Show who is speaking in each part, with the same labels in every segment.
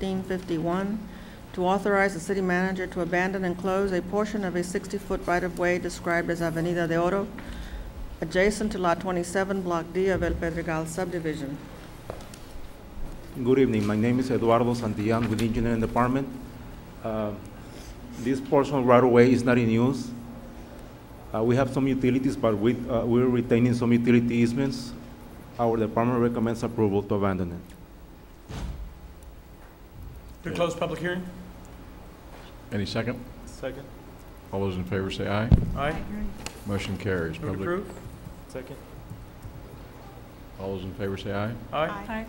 Speaker 1: 7-1551 to authorize the city manager to abandon and close a portion of a 60-foot right-of-way described as Avenida de Oro, adjacent to Lot 27, Block D of El Pedregal subdivision.
Speaker 2: Good evening. My name is Eduardo Santillan with Engineering Department. Uh, This portion right away is not in use. Uh, We have some utilities, but we, uh, we're retaining some utility easements. Our department recommends approval to abandon it.
Speaker 3: To close public hearing?
Speaker 4: Any second?
Speaker 3: Second.
Speaker 4: All those in favor say aye.
Speaker 3: Aye.
Speaker 4: Motion
Speaker 3: Move
Speaker 4: carries.
Speaker 3: to
Speaker 4: Public-
Speaker 3: approve? Second.
Speaker 4: All those in favor say aye.
Speaker 3: Aye.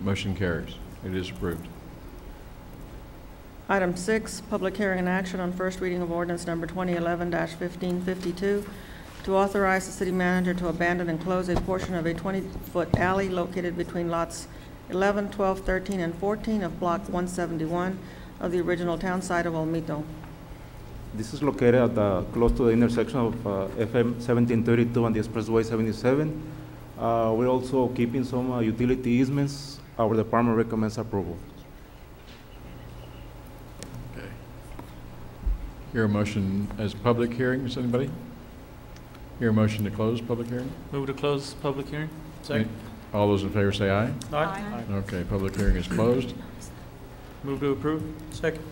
Speaker 4: Motion carries. It is approved.
Speaker 1: Item six, public hearing and action on first reading of ordinance number 2011-1552 to authorize the city manager to abandon and close a portion of a 20-foot alley located between lots 11, 12, 13, and 14 of Block 171 of the original town site of Olmito.
Speaker 2: This is located at the, close to the intersection of uh, FM 1732 and the Expressway 77. Uh, We're also keeping some uh, utility easements. Our department recommends approval.
Speaker 4: Okay. Hear a motion as public hearing, is anybody? Hear a motion to close public hearing?
Speaker 3: Move to close public hearing?
Speaker 4: All those in favor say aye.
Speaker 3: Aye.
Speaker 4: Okay, public hearing is closed.
Speaker 3: Move to approve? Second.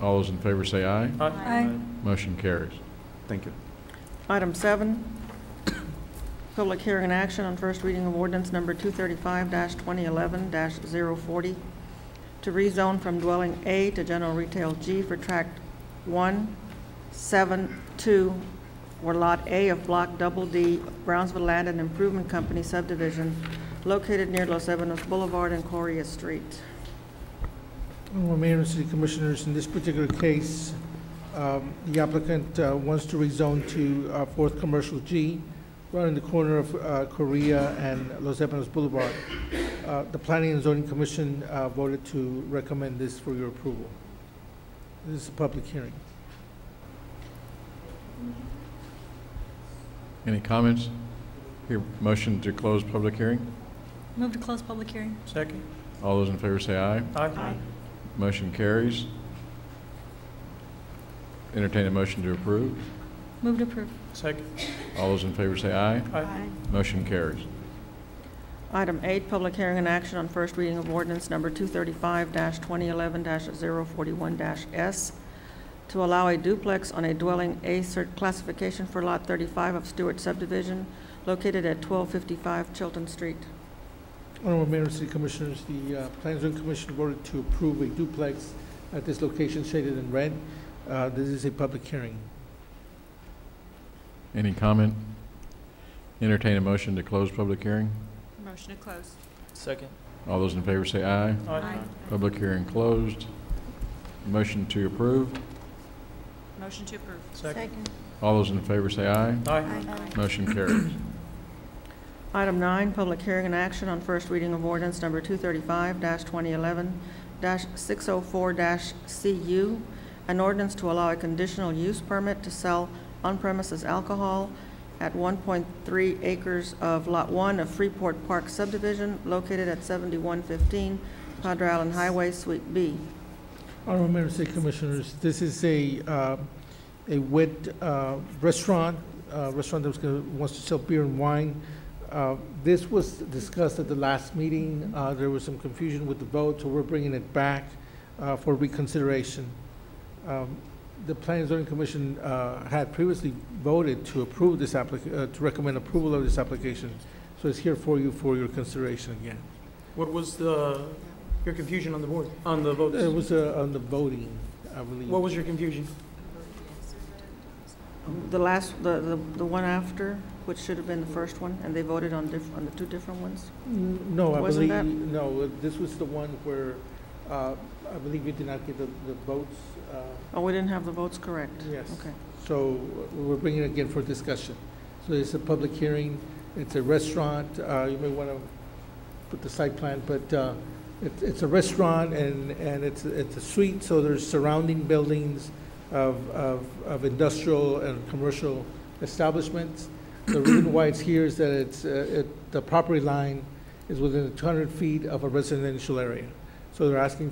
Speaker 4: All those in favor say aye.
Speaker 3: Aye.
Speaker 4: Motion carries.
Speaker 2: Thank you.
Speaker 1: Item seven, public hearing and action on first reading of ordinance number 235-2011-040 to rezone from dwelling A to general retail G for tract 1, 7, 2, or Lot A of Block Double D, Brownsville Land and Improvement Company subdivision located near Los Ebanos Boulevard and Correa Street.
Speaker 5: Well, Mayor and City Commissioners, in this particular case, um, the applicant uh, wants to rezone to uh, Fourth Commercial G, right in the corner of uh, Korea and Los Ebanos Boulevard. Uh, The Planning and Zoning Commission uh, voted to recommend this for your approval. This is a public hearing.
Speaker 4: Any comments? Hear motion to close public hearing?
Speaker 6: Move to close public hearing.
Speaker 3: Second.
Speaker 4: All those in favor say aye.
Speaker 3: Aye.
Speaker 4: Motion carries. Entertain a motion to approve.
Speaker 6: Move to approve.
Speaker 3: Second.
Speaker 4: All those in favor say aye.
Speaker 3: Aye.
Speaker 4: Motion carries.
Speaker 1: Item eight, public hearing and action on first reading of ordinance number 235-2011-041-S to allow a duplex on a dwelling A cert classification for Lot 35 of Stewart subdivision located at 1255 Chilton Street.
Speaker 5: Honorable Mayor and City Commissioners, the uh, Planning and Zoning Commission voted to approve a duplex at this location shaded in red. Uh, This is a public hearing.
Speaker 4: Any comment? Entertain a motion to close public hearing.
Speaker 6: Motion to close.
Speaker 3: Second.
Speaker 4: All those in favor say aye. Public hearing closed. Motion to approve.
Speaker 6: Motion to approve.
Speaker 3: Second.
Speaker 4: All those in favor say aye.
Speaker 3: Aye.
Speaker 4: Motion carries.
Speaker 1: Item nine, public hearing and action on first reading of ordinance number 235-2011-604-CU, an ordinance to allow a conditional use permit to sell on-premises alcohol at 1.3 acres of Lot 1 of Freeport Park subdivision located at 7115 Padre Island Highway, Suite B.
Speaker 5: Honorable Mayor and City Commissioners, this is a, uh, a wet uh, restaurant, uh, restaurant that was gonna, wants to sell beer and wine. Uh, This was discussed at the last meeting, Uh, there was some confusion with the vote, so we're bringing it back uh, for reconsideration. Um, The Planning and Zoning Commission uh, had previously voted to approve this applic, uh, to recommend approval of this application, so it's here for you for your consideration again.
Speaker 3: What was the, your confusion on the board, on the
Speaker 5: It
Speaker 3: votes?
Speaker 5: was uh, on the voting, I believe.
Speaker 3: What was your confusion?
Speaker 1: The last, the, the the one after, which should have been the first one, and they voted on diff, on the two different ones?
Speaker 5: N- No, I
Speaker 1: Wasn't
Speaker 5: believe,
Speaker 1: that-
Speaker 5: no, this was the one where, uh, I believe you did not get the, the votes, uh,
Speaker 1: Oh, we didn't have the votes correct?
Speaker 5: yes.
Speaker 1: Okay.
Speaker 5: So uh, we're bringing it again for discussion. So it's a public hearing, it's a restaurant, uh, you may want to put the site plan, but uh, it- it's a restaurant and, and it's, it's a suite, so there's surrounding buildings of, of of industrial and commercial establishments. The reason why it's here is that it's, uh, it- the property line is within 200 feet of a residential area. So they're asking